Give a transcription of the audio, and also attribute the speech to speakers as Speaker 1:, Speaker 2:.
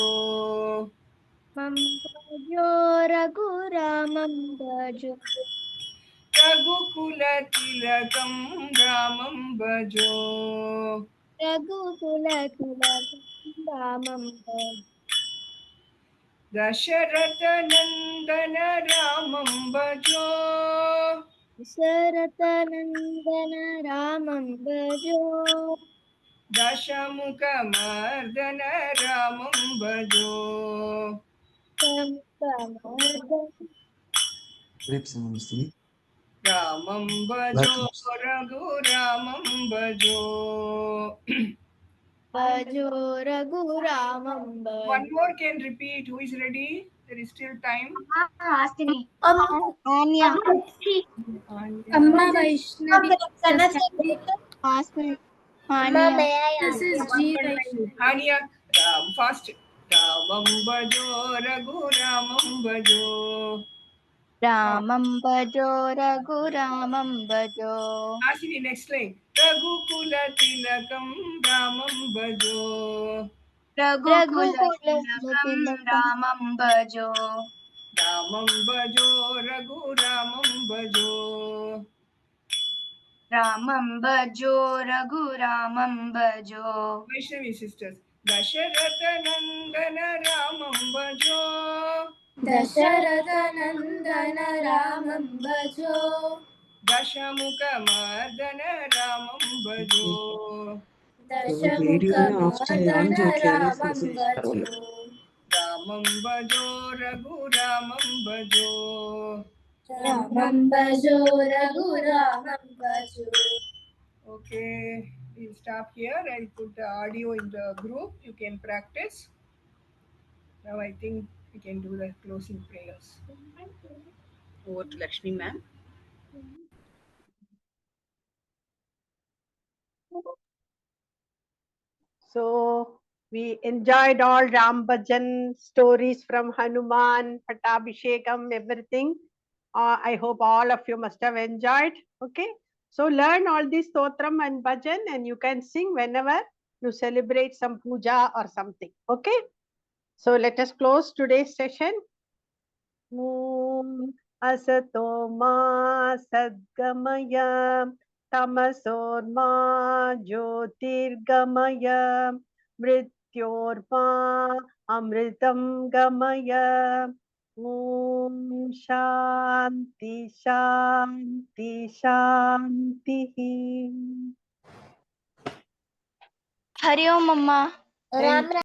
Speaker 1: मम भजो रघुरामं भजो
Speaker 2: रघुकुलतिलकं रामं भजो
Speaker 1: रघुकुलतिलकं रामं भज
Speaker 2: दशरथनन्दन रामं भजो
Speaker 1: शरतनन्दन रामं भजो
Speaker 2: दशमुखमर्दन रामं भजो
Speaker 1: तं प्रमोदं
Speaker 3: Hepsini istedik.
Speaker 2: रामं भजो रघुरामं भजो
Speaker 1: भजो रघुरामं भज
Speaker 2: One more can repeat. Who is ready? There is still time. Anya.
Speaker 4: Amma Vaishnavi. This is G Vaishnavi.
Speaker 2: Anya. Ram, fast. Ramam Bajo, Raghu Ramam Bajo.
Speaker 5: रामं भजो रघुरामं भजो
Speaker 2: Ashini, next line. Raghukula Tilakam Ramam Bajo.
Speaker 5: रघुकुलतिलकं रामं भजो
Speaker 2: Ramam Bajo, Raghu Ramam Bajo.
Speaker 5: रामं भजो रघुरामं भजो
Speaker 2: Vaishnavi sisters. Dasharatha Nandana Ramam Bajo.
Speaker 4: Dasharatanandana Ramam Bhajo.
Speaker 2: दशमुखमर्दन रामं भजो
Speaker 4: Dashamukhamardana Ramam Bhajo.
Speaker 2: रामं भजो रघुरामं भजो
Speaker 4: Ramam Bhajo Raghuramam Bhajo.
Speaker 2: Okay we'll stop here i'll put the audio in the group you can practice now i think we can do the closing prayers
Speaker 6: Over to Lakshmi, ma'am.
Speaker 7: So we enjoyed all Ram Bhajan stories from Hanuman, Patabhishekam, everything. Uh, I hope all of you must have enjoyed. Okay. So learn all these Totram and Bhajan and you can sing whenever you celebrate some puja or something. Okay. So let us close today's session. Om Asato Ma Sadgamaya तमसोर्मा ज्योतिर्गमय मृत्योर्मा अमृतं गमय ॐ शान्ति शान्ति शान्तिः
Speaker 5: हरि ओम अम्मा
Speaker 1: राम